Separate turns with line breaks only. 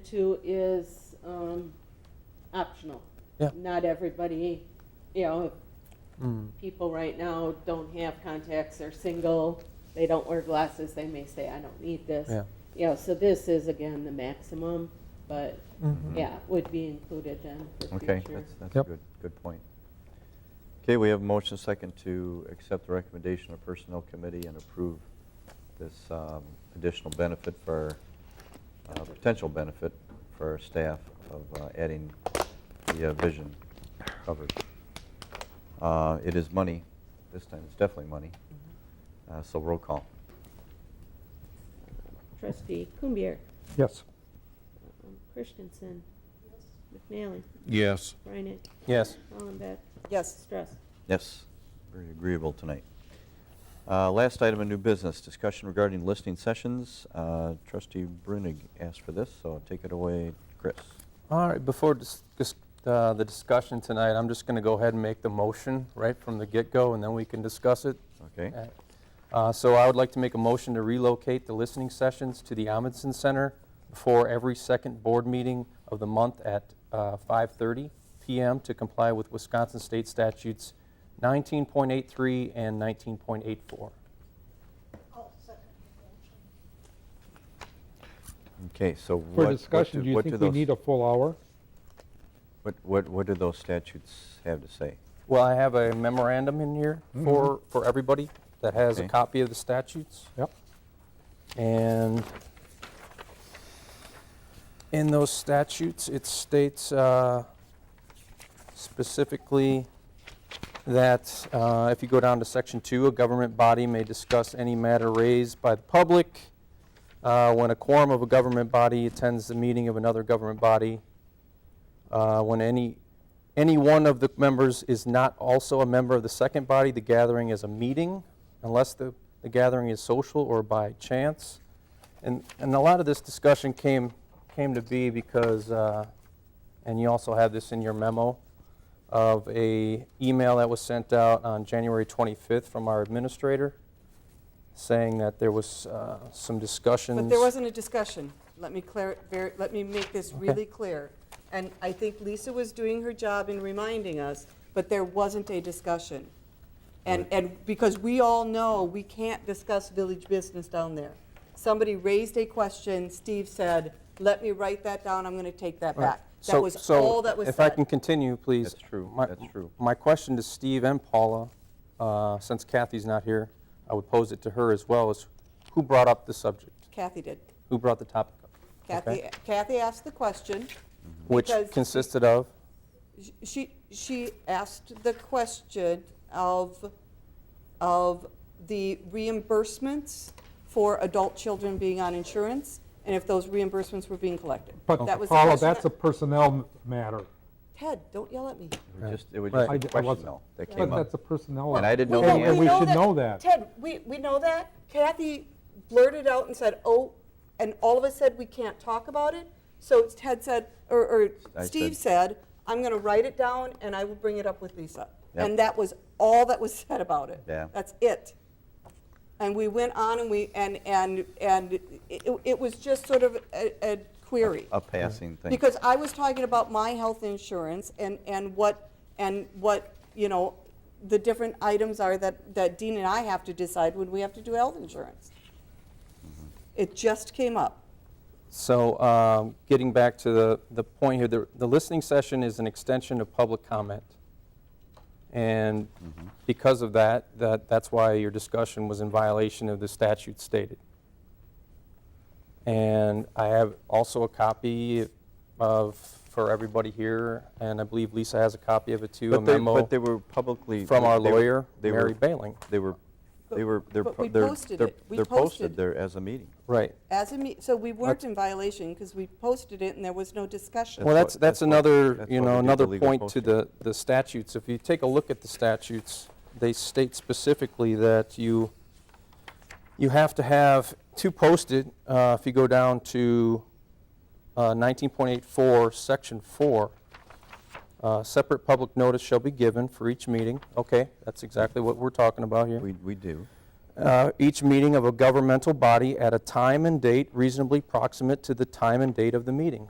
Two is um, optional.
Yeah.
Not everybody, you know,
Mm.
people right now don't have contacts, they're single, they don't wear glasses, they may say, I don't need this.
Yeah.
You know, so this is again the maximum, but
Mhm.
yeah, would be included then for
Mm-hmm. Okay,
future.
that's, that's a
Yep.
good, good point. Okay, we have a motion second to accept the recommendation of Personnel Committee and approve this um, additional benefit for, uh, potential benefit for our staff of uh, adding the uh, vision coverage. Uh, It is money, this time it's definitely money, Uh, so roll call.
Trustee Kumbier,
Yes.
um, Christensen, McNally,
Yes.
Reinet,
Yes.
Hollenbeck,
Yes,
Strauss.
Yes, very agreeable tonight. Uh, Last item of new business, discussion regarding listening sessions. Uh, Trustee Brunig asked for this, so take it away, Chris.
All right, before dis- dis- uh, the discussion tonight, I'm just going to go ahead and make the motion right from the get-go, and then we can discuss it.
Okay,
Uh, So I would like to make a motion to relocate the listening sessions to the Amundsen Center before every second board meeting of the month at uh, 5:30 PM to comply with Wisconsin State Statutes 19.83 and 19.84.
okay, so what?
For
what
discussion, do you
what
think we
those-
need a full hour?
What, what, what do those statutes have to say?
Well, I have a memorandum in here for, for everybody that has a
Okay.
copy of the statutes.
Yep.
And in those statutes, it states uh, specifically that uh, if you go down to section two, a government body may discuss any matter raised by the public. Uh, When a quorum of a government body attends the meeting of another government body, uh, when any, any one of the members is not also a member of the second body, the gathering is a meeting, unless the, the gathering is social or by chance. And, and a lot of this discussion came, came to be because, uh, and you also have this in your memo, of a email that was sent out on January 25th from our administrator, saying that there was uh, some discussions.
but there wasn't a discussion. Let me clar- ver- let me make this really clear. And I think Lisa was doing her job in reminding us, but there wasn't a discussion. And, and because we all know we can't discuss village business down there. Somebody raised a question, Steve said, let me write that down, I'm going to take that
Right.
back. That
So-
was all that was
So
said.
if I can continue, please.
That's true,
My-
that's true.
My question to Steve and Paula, uh, since Kathy's not here, I would pose it to her as well, is who brought up the subject?
Kathy did.
Who brought the topic up?
Kathy,
Okay.
Kathy asked the question.
Which
because-
consisted of?
she, she asked the question of, of the reimbursements for adult children being on insurance, and if those reimbursements were being collected.
But
That was the
Paula,
question
that's a
that-
personnel matter.
Ted, don't yell at me.
It was just, it was
Right.
just
I
a
d- I
question
wasn't-
though, that
But
came
that's a
up.
personnel.
And I didn't know
Well,
the
and
answer.
we should know that.
Ted, we, we know that. Kathy blurted out and said, oh, and all of us said we can't talk about it. So Ted said, or, or
I
Steve said, I'm going to write it down and I will bring it up with Lisa.
Yep.
And that was all that was said about it.
Yeah.
That's it. And we went on and we, and, and, and it, it was just sort of a, a query.
A passing thing.
Because I was talking about my health insurance and, and what, and what, you know, the different items are that, that Dean and I have to decide when we have to do health insurance. It just came up.
So um, getting back to the, the point here, the, the listening session is an extension of public comment. And
Mm-hmm.
because of that, that, that's why your discussion was in violation of the statute stated. And I have also a copy of, for everybody here, and I believe Lisa has a copy of it too, a
But they,
memo
but they were publicly.
from our
they were-
lawyer,
they were-
Mary Bailing.
They were, they were, they're.
But
po-
we
they're-
posted
they're-
it. We
They're
posted.
posted there as a meeting.
Right.
As a, me- so we weren't in violation because we posted it and there was no discussion.
Well,
That's
that's,
what-
that's
that's what-
another,
that's
you
why we
know,
did the
another
legal
point to
posting.
the, the statutes. If you take a look at the statutes, they state specifically that you, you have to have two posted. uh, If you go down to uh, 19.84, Section 4, uh, separate public notice shall be given for each meeting. Okay, that's exactly what we're talking about here
We, we do.
uh, each meeting of a governmental body at a time and date reasonably proximate to the time and date of the meeting.